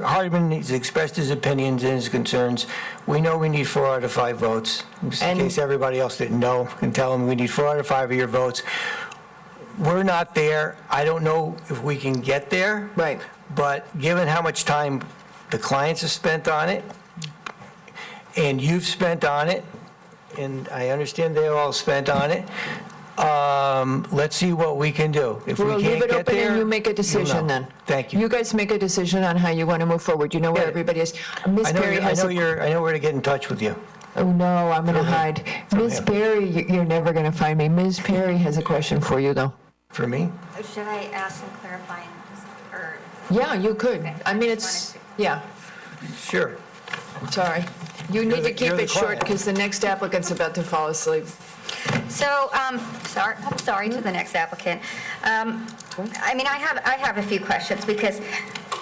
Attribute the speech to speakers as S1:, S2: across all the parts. S1: Hardeman has expressed his opinions and his concerns. We know we need four out of five votes, just in
S2: And-
S1: case everybody else didn't know, and tell them we need four out of five of your votes. We're not there. I don't know if we can get there.
S2: Right.
S1: But given how much time the clients have spent on it, and you've spent on it, and I understand they all spent on it, um, let's see what we can do. If we
S2: We'll leave
S1: can't
S2: it
S1: get
S2: open
S1: there,
S2: and you make a
S1: you'll
S2: decision
S1: know.
S2: then.
S1: Thank you.
S2: You guys make a decision on how you want to move forward. You know where
S1: Got it.
S2: everybody is. Miss
S1: I know,
S2: Perry
S1: you- I
S2: has
S1: know
S2: a,
S1: you're, I know where to get in touch with you.
S2: oh no, I'm going to hide. Miss Perry, you- you're never going to find me. Miss Perry has a question for you though.
S1: For me?
S3: Should I ask some clarifying, or?
S2: Yeah, you could.
S3: Okay.
S2: I mean, it's,
S3: Wanted
S2: yeah,
S1: Sure.
S2: sorry. You need
S1: the-
S2: to keep
S1: you're the
S2: it short
S1: client.
S2: because the next applicant's about to fall asleep.
S3: So, um, sorry, I'm sorry to the next applicant. Um, I mean, I have, I have a few questions, because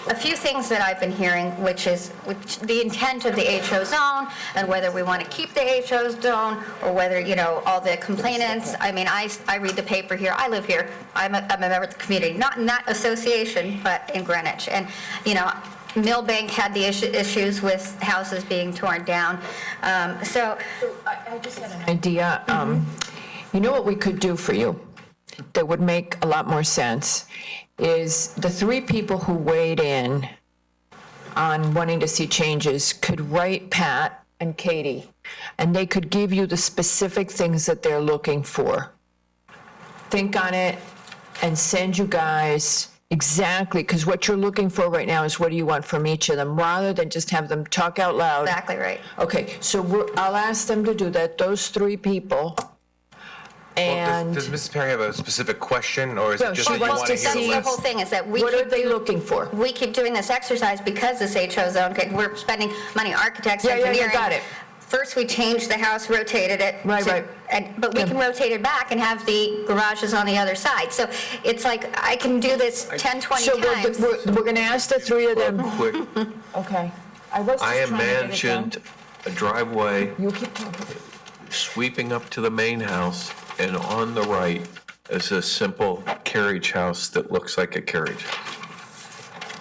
S3: a few things that I've been hearing, which is, which, the intent of the HO zone, and whether we want to keep the HO zone, or whether, you know, all the complainants, I mean, I, I read the paper here, I live here, I'm a, I'm a member of the community, not in that association, but in Greenwich, and, you know, Millbank had the issue- issues with houses being torn down, Um, so,
S2: idea, um, you know what we could do for you that would make a lot more sense is the three people who weighed in on wanting to see changes could write Pat and Katie, and they could give you the specific things that they're looking for. Think on it and send you guys exactly, because what you're looking for right now is what do you want from each of them, rather than just have them talk out loud.
S3: exactly right.
S2: Okay, so we're, I'll ask them to do that, those three people.
S4: Well, Does
S2: And
S4: does Mrs. Perry have a specific question, or is
S2: Well,
S4: it just
S2: she
S4: that you
S2: wants
S4: want to
S2: to
S4: hear
S2: see-
S3: That's the
S4: less?
S3: whole thing, is that we
S2: what are
S3: keep,
S2: they looking for?
S3: we keep doing this exercise because this HO zone, okay, we're spending money, architects,
S2: Yeah, yeah, yeah,
S3: engineering.
S2: got it.
S3: First, we changed the house, rotated it.
S2: Right,
S3: to-
S2: right.
S3: And, but we
S2: Yeah.
S3: can rotate it back and have the garages on the other side. So it's like, I can do this 10, 20
S2: So we're,
S3: times.
S2: we're, we're gonna ask the three of them,
S5: Quick,
S2: okay. I was
S5: I
S2: just trying to get it done.
S5: imagined a driveway
S2: You keep talking.
S5: sweeping up to the main house, and on the right is a simple carriage house that looks like a carriage.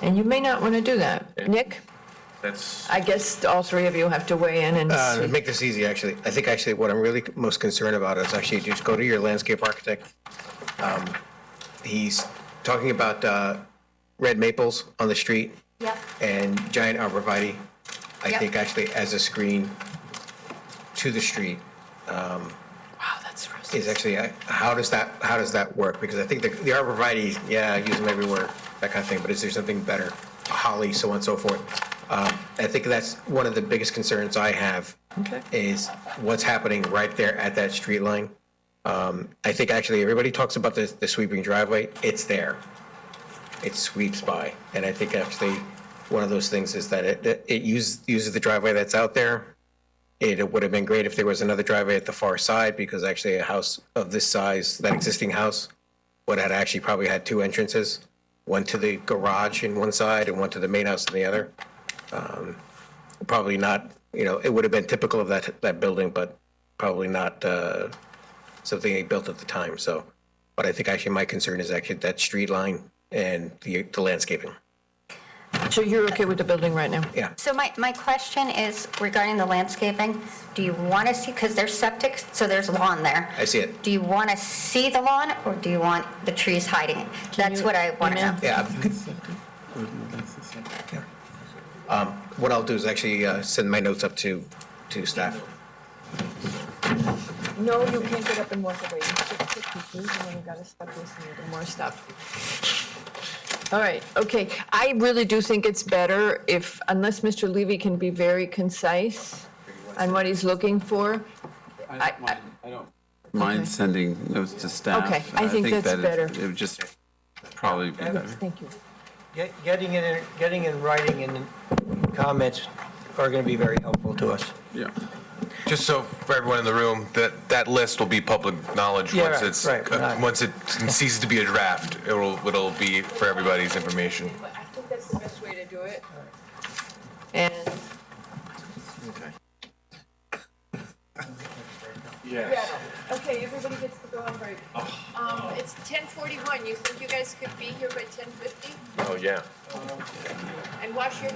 S2: And you may not wanna do that. Nick,
S5: That's,
S2: I guess all three of you have to weigh in and
S6: Uh, to
S2: see.
S6: make this easy, actually, I think actually what I'm really most concerned about is actually just go to your landscape architect. Um, He's talking about uh, red maples on the street
S3: Yep.
S6: and giant arborvitae. I
S3: Yep.
S6: think actually as a screen to the street
S2: Wow, Oh, that's rough.
S6: is actually, uh, how does that, how does that work? Because I think the the arborvitae, yeah, I use them everywhere, that kind of thing, but is there something better? Holly, so on and so forth. Um, I think that's one of the biggest concerns I have
S2: Okay.
S6: is what's happening right there at that street line. Um, I think actually everybody talks about the, the sweeping driveway. It's there. It sweeps by. And I think actually one of those things is that it, it- it uses, uses the driveway that's out there. It would have been great if there was another driveway at the far side because actually a house of this size, that existing house, would have actually probably had two entrances, one to the garage in one side and one to the main house in the other probably not, you know, it would have been typical of that, that building, but probably not uh, something they built at the time, so. But I think actually my concern is actually that street line and the the landscaping.
S2: So you're okay with the building right now?
S3: So my, my question is regarding the landscaping. Do you want to see, because there's septic, so there's lawn there.
S6: I see it.
S3: Do you want to see the lawn, or do you want the trees hiding it? That's what I want to know.
S6: Yeah. Um, What I'll do is actually uh, send my notes up to, to staff.
S2: No, you can't get up and walk away. You have to pick your shoes and then you gotta stop listening to more stuff. All right, okay. I really do think it's better if, unless Mr. Levy can be very concise on what he's looking for.
S7: I
S2: I-
S7: don't mind- I don't mind sending notes to staff.
S2: Okay, I think that's
S7: that it-
S2: better.
S7: It would just probably be better.
S2: Thank you.
S1: Get- Getting it, in- getting in writing and comments are going to be very helpful to us.
S7: Yeah.
S4: Just so for everyone in the room, that, that list will be public knowledge
S1: Yeah,
S4: once
S1: right, right,
S4: it's,
S1: right.
S4: once it ceases to be a draft. It'll, it'll be for everybody's information.
S2: I think that's the best way to do it. And.
S8: Yes. Okay, everybody gets to go on break. Um, it's ten forty-one, you think you guys could be here by ten fifty?
S5: oh, yeah.
S8: And wash your